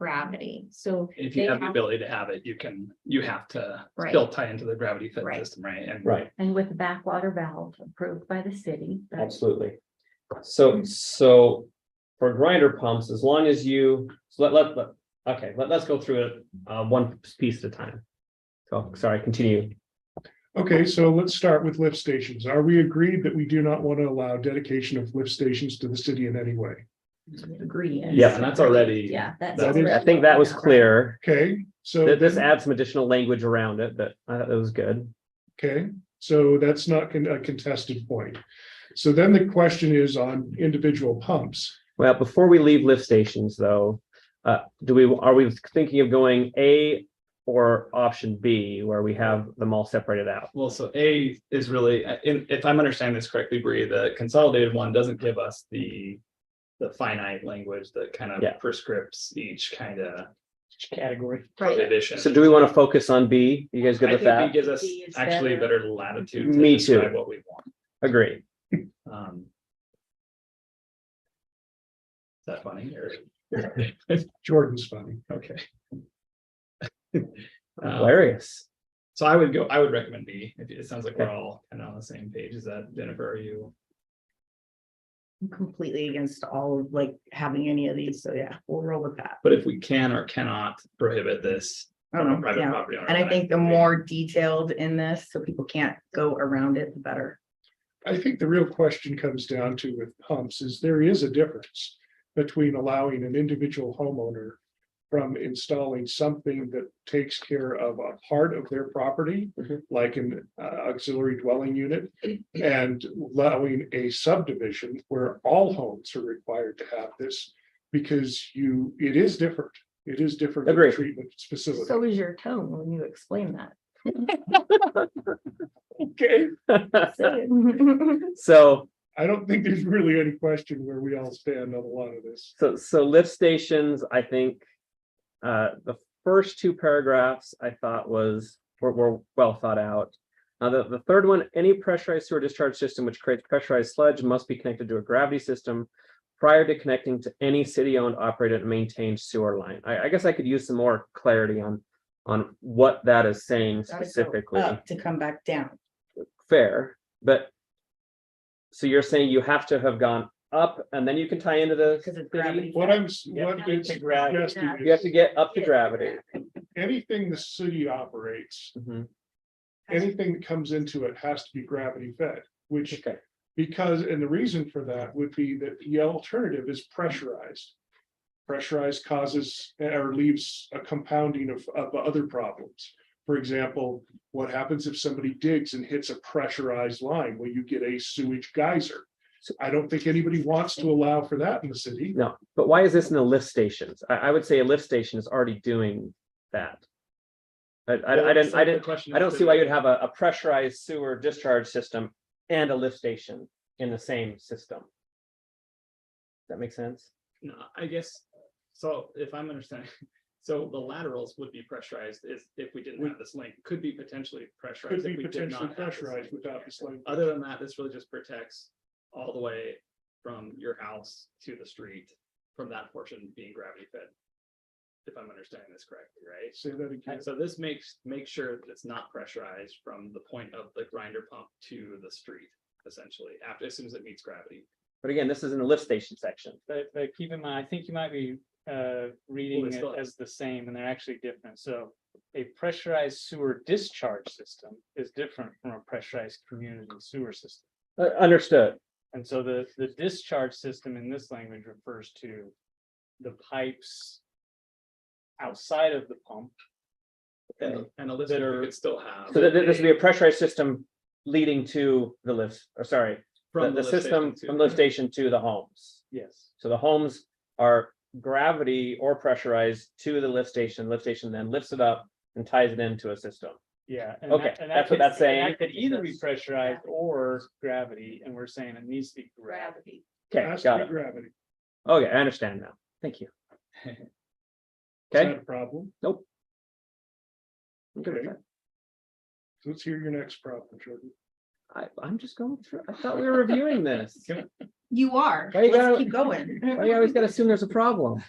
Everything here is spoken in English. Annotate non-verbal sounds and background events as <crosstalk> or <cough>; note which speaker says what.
Speaker 1: non-gravity, so.
Speaker 2: If you
Speaker 1: they
Speaker 2: have the
Speaker 1: have-
Speaker 2: ability to have it, you can, you have to
Speaker 1: Right.
Speaker 2: still tie into the gravity fit
Speaker 1: Right.
Speaker 2: system, right? And
Speaker 3: Right,
Speaker 4: And with the backwater valve approved by the city. that's-
Speaker 3: absolutely. So, so for grinder pumps, as long as you, so let, let, let, okay, let, let's go through it, uh, one piece at a time. So, sorry, continue.
Speaker 5: Okay, so let's start with lift stations. Are we agreed that we do not want to allow dedication of lift stations to the city in any way?
Speaker 4: Agree.
Speaker 2: Yeah, and that's already-
Speaker 4: Yeah, that's.
Speaker 5: That is-
Speaker 3: I think that was clear.
Speaker 5: Okay, so.
Speaker 3: Th- This adds some additional language around it, but I thought that was good.
Speaker 5: Okay, so that's not con- a contested point. So then the question is on individual pumps.
Speaker 3: Well, before we leave lift stations though, uh, do we, are we thinking of going A or option B where we have them all separated out?
Speaker 2: Well, so A is really, uh, in- if I'm understanding this correctly, Bree, the consolidated one doesn't give us the. The finite language that kind
Speaker 3: Yeah.
Speaker 2: of prescripts each kind of
Speaker 3: Category.
Speaker 1: Right,
Speaker 2: prohibition.
Speaker 3: So do we want to focus on B? You guys good
Speaker 2: I
Speaker 3: with
Speaker 2: think B
Speaker 3: that?
Speaker 2: gives us
Speaker 4: B is
Speaker 2: actually
Speaker 4: better.
Speaker 2: better latitude. to
Speaker 3: Me too.
Speaker 2: describe What we want.
Speaker 3: Agree.
Speaker 2: Um. Is that funny or?
Speaker 5: Jordan's funny.
Speaker 2: Okay. <laughs> Um,
Speaker 3: Hilarious.
Speaker 2: So I would go, I would recommend B. If It sounds like we're all kind of on the same page. Is that Jennifer, are you?
Speaker 6: I'm completely against all of like having any of these, so yeah, we'll roll with that.
Speaker 2: But if we can or cannot prohibit this.
Speaker 6: I don't know,
Speaker 2: private
Speaker 6: yeah.
Speaker 2: property owner,
Speaker 6: And I
Speaker 2: then
Speaker 6: think the
Speaker 2: agree.
Speaker 6: more detailed in this, so people can't go around it, the better.
Speaker 5: I think the real question comes down to with pumps is there is a difference between allowing an individual homeowner from installing something that takes care of a part of their property,
Speaker 3: Mhm.
Speaker 5: like an uh, auxiliary dwelling unit, and allowing a subdivision where all homes are required to have this because you, it is different. It is different in
Speaker 3: Agreed.
Speaker 5: treatment specifically.
Speaker 1: so is your tone when you explain that.
Speaker 5: Okay.
Speaker 1: Say it.
Speaker 3: So,
Speaker 5: I don't think there's really any question where we all stand on a lot of this.
Speaker 3: so, so lift stations, I think, uh, the first two paragraphs I thought was, were, were well thought out. Now, the, the third one, any pressurized sewer discharge system which creates pressurized sludge must be connected to a gravity system prior to connecting to any city-owned, operated, and maintained sewer line. I, I guess I could use some more clarity on, on what that is saying
Speaker 6: Gotta go
Speaker 3: specifically.
Speaker 6: Up to come back down.
Speaker 3: fair, but. So you're saying you have to have gone up and then you can tie into the.
Speaker 6: 'Cause
Speaker 3: city?
Speaker 6: it's gravity.
Speaker 5: What I'm, s-
Speaker 3: Yeah.
Speaker 5: what it's
Speaker 4: To gravity.
Speaker 5: suggesting
Speaker 4: Yeah.
Speaker 3: You have
Speaker 5: is
Speaker 3: to get up to gravity.
Speaker 5: anything the city operates,
Speaker 3: Mhm,
Speaker 5: anything that comes into it has to be gravity fed, which
Speaker 3: Okay,
Speaker 5: because, and the reason for that would be that the alternative is pressurized. Pressurized causes eh, or leaves a compounding of, of other problems. For example, what happens if somebody digs and hits a pressurized line? Well, you get a sewage geyser.
Speaker 3: So-
Speaker 5: I don't think anybody wants to allow for that in the city.
Speaker 3: no, but why is this in the lift stations? I, I would say a lift station is already doing that. I, I, I didn't, I didn't, I don't see why you'd have a, a pressurized sewer discharge system and a lift station in the same system. Does That make sense?
Speaker 2: No, I guess, so if I'm understanding, <laughs> so the laterals would be pressurized is if we didn't have this link, could be potentially
Speaker 5: Could
Speaker 2: pressurized.
Speaker 5: be
Speaker 2: if we did not have
Speaker 5: potentially
Speaker 2: this
Speaker 5: pressurized
Speaker 2: link.
Speaker 5: without this language.
Speaker 2: Other than that, this really just protects all the way from your house to the street, from that portion being gravity fed. If I'm understanding this correctly, right?
Speaker 5: Say that again.
Speaker 2: And so this makes, make sure that it's not pressurized from the point of the grinder pump to the street, essentially, after, as soon as it meets gravity.
Speaker 3: But again, this is in the lift station section.
Speaker 7: But, but keep in mind, I think you might be, uh,
Speaker 2: Well,
Speaker 7: reading
Speaker 2: it's
Speaker 7: it
Speaker 2: not-
Speaker 7: as the same and they're actually different. So a pressurized sewer discharge system is different from a pressurized community sewer system.
Speaker 3: Uh, understood.
Speaker 7: And so the, the discharge system in this language refers to the pipes outside of the pump.
Speaker 2: And, and a listener
Speaker 7: Better-
Speaker 2: could still have.
Speaker 3: So th- th- this would be
Speaker 2: a-
Speaker 3: a pressurized system leading to the lifts, or sorry, the,
Speaker 2: from
Speaker 3: the
Speaker 2: lift
Speaker 3: system
Speaker 2: station
Speaker 3: from
Speaker 2: to-
Speaker 3: lift station to the homes.
Speaker 7: Yes.
Speaker 3: So the homes are gravity or pressurized to the lift station, lift station then lifts it up and ties it into a system.
Speaker 7: Yeah. and
Speaker 3: Okay,
Speaker 7: that- and that
Speaker 3: that's what
Speaker 7: could-
Speaker 3: that's
Speaker 7: and that
Speaker 3: saying.
Speaker 7: Could either be pressurized or gravity, and we're saying it needs to be gravity.
Speaker 4: Gravity.
Speaker 3: Okay,
Speaker 5: Has to
Speaker 3: got
Speaker 5: be
Speaker 3: it.
Speaker 5: gravity.
Speaker 3: Okay, I understand now. Thank you.
Speaker 5: Is
Speaker 3: Okay.
Speaker 5: that a problem?
Speaker 3: I'm good with that.
Speaker 5: So Let's hear your next problem, Jordan.
Speaker 3: I, I'm just going through. I thought we were
Speaker 7: <laughs>
Speaker 3: reviewing this.
Speaker 2: Can
Speaker 6: You are.
Speaker 3: Why you
Speaker 6: Let's
Speaker 3: gotta-
Speaker 6: keep going.
Speaker 3: Why you always gotta assume there's a problem?